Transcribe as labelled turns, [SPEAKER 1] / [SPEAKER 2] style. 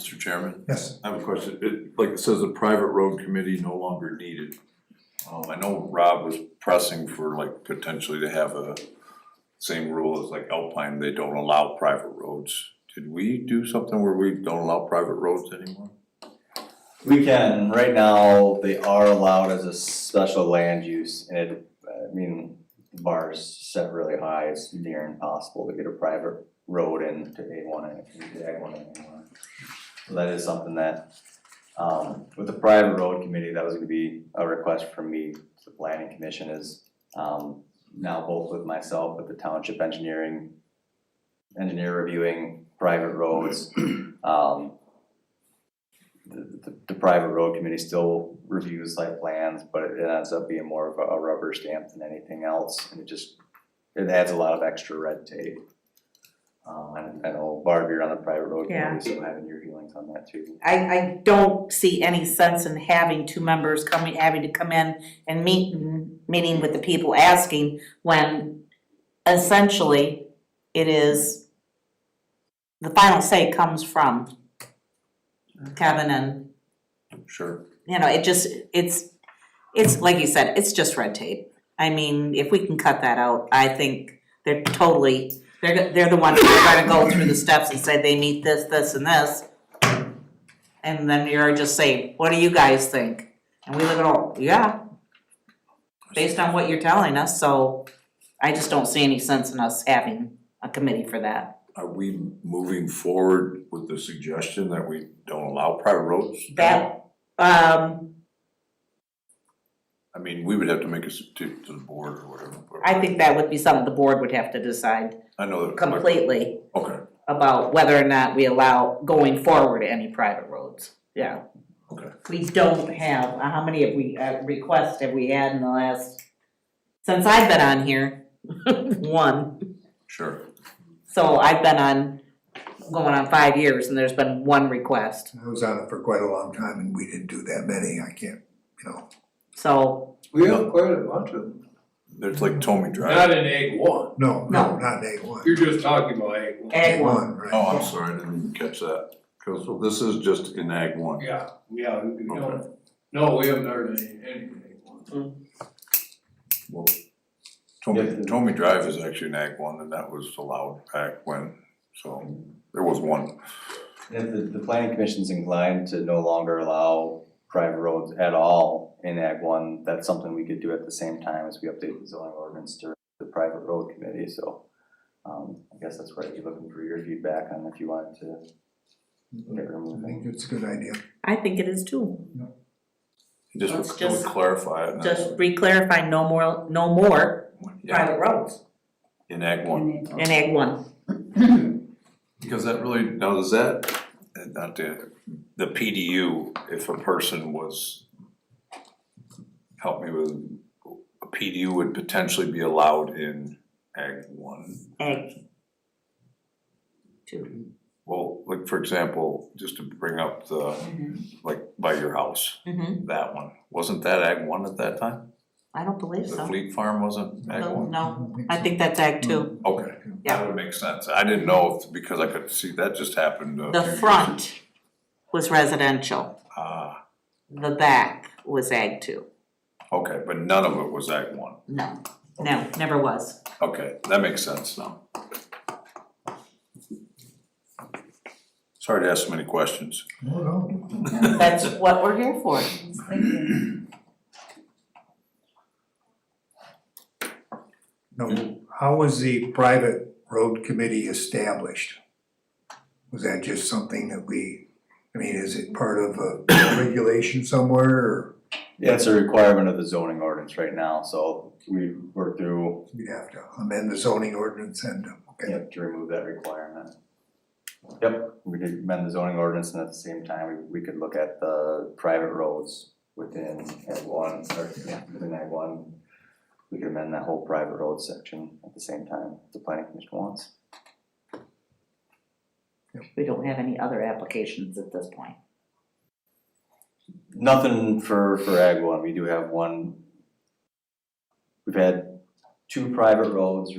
[SPEAKER 1] Chairman?
[SPEAKER 2] Yes.
[SPEAKER 1] I have a question, it, like it says, a private road committee no longer needed. Um, I know Rob was pressing for like potentially to have a same rule as like Alpine, they don't allow private roads. Did we do something where we don't allow private roads anymore?
[SPEAKER 3] We can, right now, they are allowed as a special land use, and it, I mean, bars set really high, it's near impossible to get a private road into A one and into Ag one and A one. So that is something that, um, with the private road committee, that was gonna be a request from me to the planning commission is, um, now both with myself, with the township engineering, engineer reviewing private roads, um, the, the, the private road committee still reviews site plans, but it ends up being more of a- a rubber stamp than anything else, and it just, it adds a lot of extra red tape. Um, and I know Barb, you're on the private road
[SPEAKER 4] Yeah.
[SPEAKER 3] committee, so having your feelings on that too.
[SPEAKER 4] I, I don't see any sense in having two members coming, having to come in and meet, meeting with the people asking when essentially it is, the final say comes from Kevin and,
[SPEAKER 1] Sure.
[SPEAKER 4] you know, it just, it's, it's, like you said, it's just red tape. I mean, if we can cut that out, I think they're totally, they're, go- they're the ones who are gonna go through the steps and say they need this, this, and this. And then you're just saying, what do you guys think? And we look at all, yeah, based on what you're telling us, so I just don't see any sense in us having a committee for that.
[SPEAKER 1] Are we moving forward with the suggestion that we don't allow private roads?
[SPEAKER 4] That, um,
[SPEAKER 1] I mean, we would have to make a, s- to, to the board or whatever. but-
[SPEAKER 4] I think that would be something the board would have to decide
[SPEAKER 1] I know that.
[SPEAKER 4] completely
[SPEAKER 1] Okay,
[SPEAKER 4] about whether or not we allow going forward any private roads, yeah.
[SPEAKER 1] Okay.
[SPEAKER 4] We don't have, uh, how many have we, uh, requests have we had in the last, since I've been on here, one.
[SPEAKER 1] sure.
[SPEAKER 4] So I've been on, going on five years and there's been one request,
[SPEAKER 2] I was on it for quite a long time and we didn't do that many, I can't, you know.
[SPEAKER 4] so,
[SPEAKER 5] We have quite a bunch of them.
[SPEAKER 1] There's like Tommy Drive.
[SPEAKER 5] Not in egg one.
[SPEAKER 2] No,
[SPEAKER 4] No.
[SPEAKER 2] no, not egg one.
[SPEAKER 5] You're just talking about egg one.
[SPEAKER 4] Ag one.
[SPEAKER 2] right.
[SPEAKER 1] Oh, I'm sorry, I didn't even catch that. 'Cause, well, this is just in ag one.
[SPEAKER 5] Yeah, yeah,
[SPEAKER 1] Okay.
[SPEAKER 5] we don't, no, we haven't heard any, any egg one.
[SPEAKER 1] Well, Tommy,
[SPEAKER 3] Yeah.
[SPEAKER 1] Tommy Drive is actually an ag one, and that was allowed back when, so there was one.
[SPEAKER 3] If the, the planning commission's inclined to no longer allow private roads at all in Ag one, that's something we could do at the same time as we update the zoning ordinance to the private road committee, so. Um, I guess that's where I'd be looking for your feedback on if you wanted to get
[SPEAKER 2] I
[SPEAKER 3] removing.
[SPEAKER 2] think it's a good idea.
[SPEAKER 4] I think it is too.
[SPEAKER 1] Just
[SPEAKER 4] Let's
[SPEAKER 1] would- would
[SPEAKER 4] just-
[SPEAKER 1] clarify it. and that's-
[SPEAKER 4] Just re-clarifying no more, no more
[SPEAKER 1] Yeah,
[SPEAKER 4] private roads
[SPEAKER 1] in ag one,
[SPEAKER 4] in Ag one.
[SPEAKER 1] because that really, now does that, uh, not the, the PDU, if a person was, help me with, a PDU would potentially be allowed in ag one.
[SPEAKER 4] Ag two.
[SPEAKER 1] Well, like, for example, just to bring up the, like, by your house,
[SPEAKER 4] Mm-hmm,
[SPEAKER 1] that one, wasn't that ag one at that time?
[SPEAKER 4] I don't believe
[SPEAKER 1] The
[SPEAKER 4] so.
[SPEAKER 1] Fleet Farm wasn't ag
[SPEAKER 4] No,
[SPEAKER 1] one?
[SPEAKER 4] no, I think that's Ag two.
[SPEAKER 1] Okay,
[SPEAKER 4] Yeah.
[SPEAKER 1] that would make sense, I didn't know, if because I could see, that just happened. a
[SPEAKER 4] The
[SPEAKER 1] few years-
[SPEAKER 4] front was residential,
[SPEAKER 1] Ah,
[SPEAKER 4] the back was Ag two.
[SPEAKER 1] okay, but none of it was ag one,
[SPEAKER 4] No, no, never was.
[SPEAKER 1] okay, that makes sense now. Sorry to ask so many questions.
[SPEAKER 2] No, no.
[SPEAKER 4] That's what we're here for.
[SPEAKER 2] No, how was the private road committee established? Was that just something that we, I mean, is it part of a regulation somewhere or
[SPEAKER 3] Yeah, it's a requirement of the zoning ordinance right now, so we work through,
[SPEAKER 2] we'd have to amend the zoning ordinance and, okay,
[SPEAKER 3] yep, to remove that requirement. Yep, we could amend the zoning ordinance and at the same time, we, we could look at the private roads within Ag one, or, yeah, within Ag one. We could amend that whole private road section at the same time, if the planning commission wants.
[SPEAKER 4] We don't have any other applications at this point.
[SPEAKER 3] Nothing for, for Ag one, we do have one. We've had two private roads